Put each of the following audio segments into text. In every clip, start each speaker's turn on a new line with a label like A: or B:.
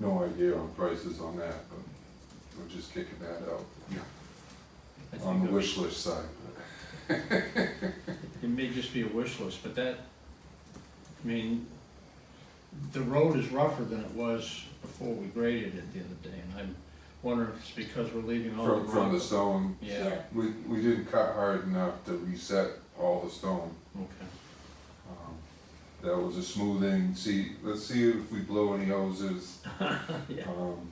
A: no idea on prices on that, but we're just kicking that out
B: I think
A: on the
B: it-
A: wish list side.
B: It may just be a wish list, but that, I mean, the road is rougher than it was before we graded it the other day, and I'm wondering if it's because we're leaving all the
A: From, from the
B: rock.
A: stone,
B: Yeah,
A: we, we didn't cut hard enough to reset all the stone.
B: okay.
A: Um, That was a smoothing, see, let's see if we blow any hoses.
B: Yeah.
A: um,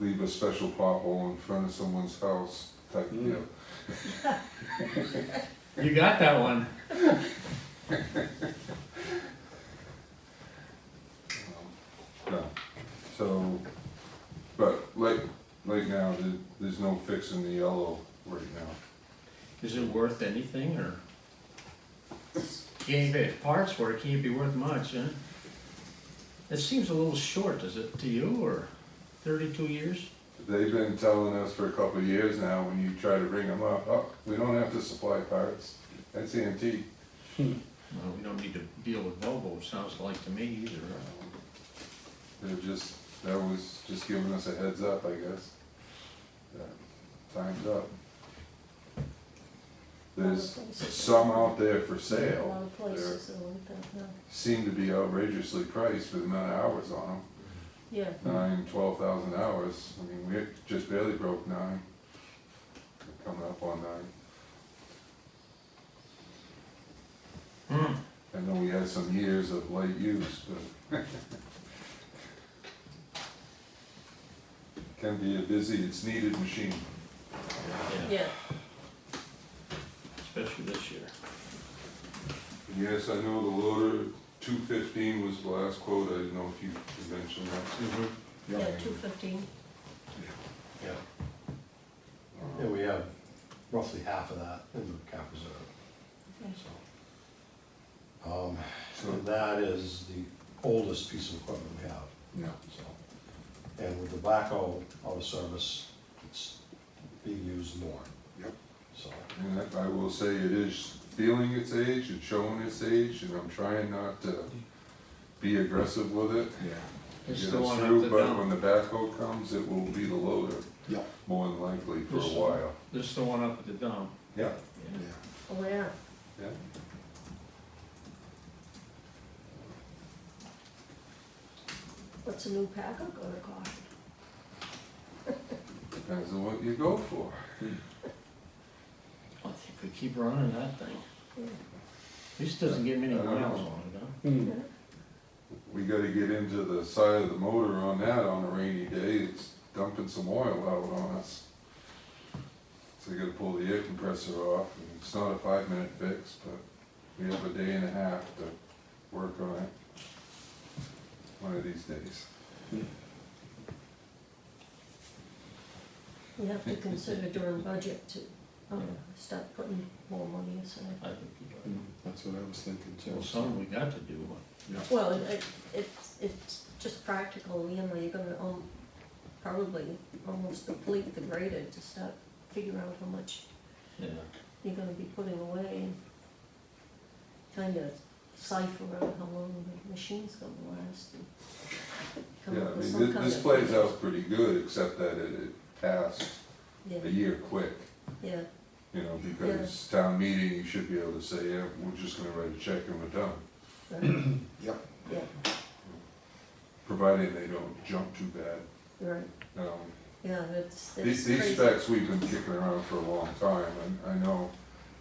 A: Leave a special pothole in front of someone's house type
C: Mm.
A: deal.
B: You got that one. Mm.
A: Um, No, so, but like, like now, there- there's no fixing the yellow right now.
B: Is it worth anything, or? Gave it parts for it, can't be worth much, huh? It seems a little short, does it, to you, or thirty-two years?
A: They've been telling us for a couple of years now, when you try to bring them up, oh, we don't have to supply parts, that's E antique.
B: Well, we don't need to deal with Volvo, it sounds like to me either.
A: Um, They're just, that was just giving us a heads up, I guess. that Time's up. There's some out there for sale,
D: Other places are like that, huh?
A: seem to be outrageously priced for the amount of hours on them.
D: Yeah,
A: nine, twelve thousand hours. I mean, we just barely broke nine. We're Coming up on nine.
B: Hmm.
A: I know we had some years of light use, but. Can be a busy, it's needed machine.
D: yeah,
B: Especially this year.
A: Yes, I know the loader, two fifteen was the last quote. I didn't know if you mentioned that.
D: yeah, two fifteen,
C: Yeah, and
A: Um,
C: we have roughly half of that in the cap reserve, so. Um,
A: So,
C: and that is the oldest piece of equipment we have,
A: yeah,
C: so. And with the backhoe out of service, it's being used more.
A: Yep.
C: So,
A: and I- I will say it is feeling its age, it's showing its age, and I'm trying not to be aggressive with it.
E: Yeah,
B: It's
A: get
B: the
A: us
B: one
A: through,
B: up the
A: But
B: dump,
A: when the backhoe comes, it will be the loader,
E: yeah,
A: more than likely, for a
B: Yes.
A: while.
B: this is the one up at the dump.
A: Yeah.
E: yeah.
D: oh, yeah.
A: Yeah.
D: What's a new packer gonna cost?
A: Depends on what you go for.
B: I think we keep running that thing.
D: Yeah.
B: This doesn't get many
A: I don't
B: miles
A: know.
B: on it, huh?
D: Yeah.
A: We gotta get into the side of the motor on that on a rainy day, it's dumping some oil out on us. So you gotta pull the air compressor off, and it's not a five minute fix, but we have a day and a half to work on it. One of these days.
D: We have to consider during budget to, um, start putting more money aside.
B: I think we
E: Mm, That's what I was thinking
B: do. Well,
E: too.
B: some we got to do.
D: Well, it- it, it's, it's just practical, you know, you're gonna, um, probably almost complete the graded to start figuring out how much
B: Yeah,
D: you're gonna be putting away and kind of cipher out how long the machine's gonna last and come
A: Yeah,
D: up
A: I
D: with
A: mean,
D: some
A: thi-
D: kind
A: this
D: of-
A: plays out pretty good, except that it, it passed a
D: Yeah,
A: year quick.
D: yeah,
A: You know, because town meeting, you should be able to say, yeah, we're just gonna write a check and we're done,
D: right,
E: Yep.
D: yeah,
A: providing they don't jump too bad.
D: right,
A: Um,
D: yeah, that's, that's
A: These,
D: crazy.
A: these specs we've been kicking around for a long time, and I know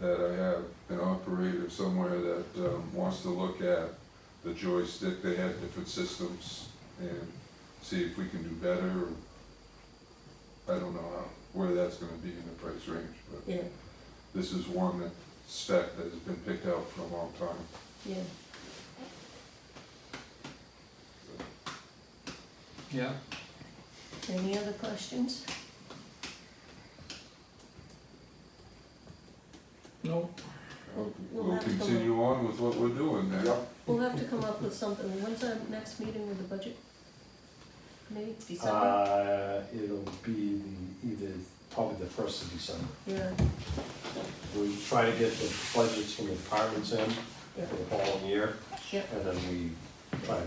A: that I have an operator somewhere that um, wants to look at the joystick, they have different systems, and see if we can do better. I don't know how- where that's gonna be in the price range, but
D: Yeah,
A: this is one that spec that has been picked out for a long time.
D: yeah,
B: yeah.
D: any other questions?
B: No,
D: We'll- we'll
A: We'll
D: have to look.
A: continue on with what we're doing now.
D: We'll have to come up with something, when's our next meeting with the budget? Maybe December,
C: uh, it'll be the, either, probably the first of December.
D: yeah,
C: We try to get the budgets from the departments in
D: yeah,
C: for the following year,
D: yeah.
C: and then we try to